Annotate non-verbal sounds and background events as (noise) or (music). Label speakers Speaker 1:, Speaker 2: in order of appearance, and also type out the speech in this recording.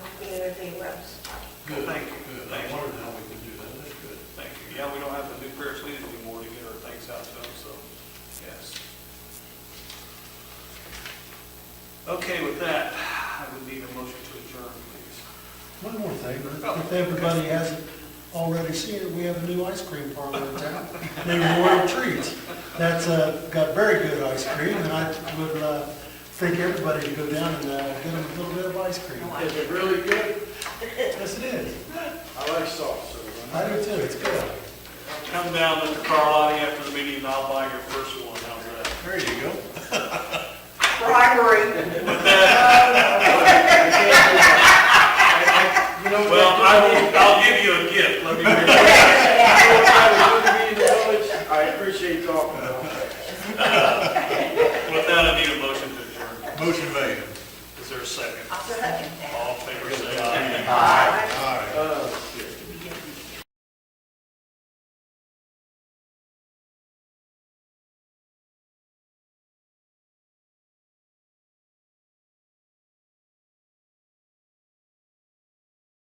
Speaker 1: between rooms.
Speaker 2: Good,
Speaker 3: Thank you.
Speaker 2: good. I
Speaker 3: Thank you.
Speaker 2: wondered how we could do that. That's good.
Speaker 3: Thank you. Yeah, we don't have to do prayers leaders anymore to get our thanks out to them, so, yes. Okay, with that, I would need a motion to adjourn, please.
Speaker 4: One more thing,
Speaker 3: Oh,
Speaker 4: if everybody hasn't already seen it, we have a new ice cream parlor in town named Royal Treats. That's uh, got very good ice cream, and I would uh, think everybody to go down and uh, get them a little bit of ice cream.
Speaker 5: Is it really good?
Speaker 4: Yes, it is.
Speaker 5: I like sauce, so
Speaker 4: (laughs)
Speaker 5: when
Speaker 4: I do too, it's good.
Speaker 3: Come down, Mr. Carlotti, after the meeting, and I'll buy your first one, how's that?
Speaker 4: There you go.
Speaker 1: Bribery.
Speaker 3: With that,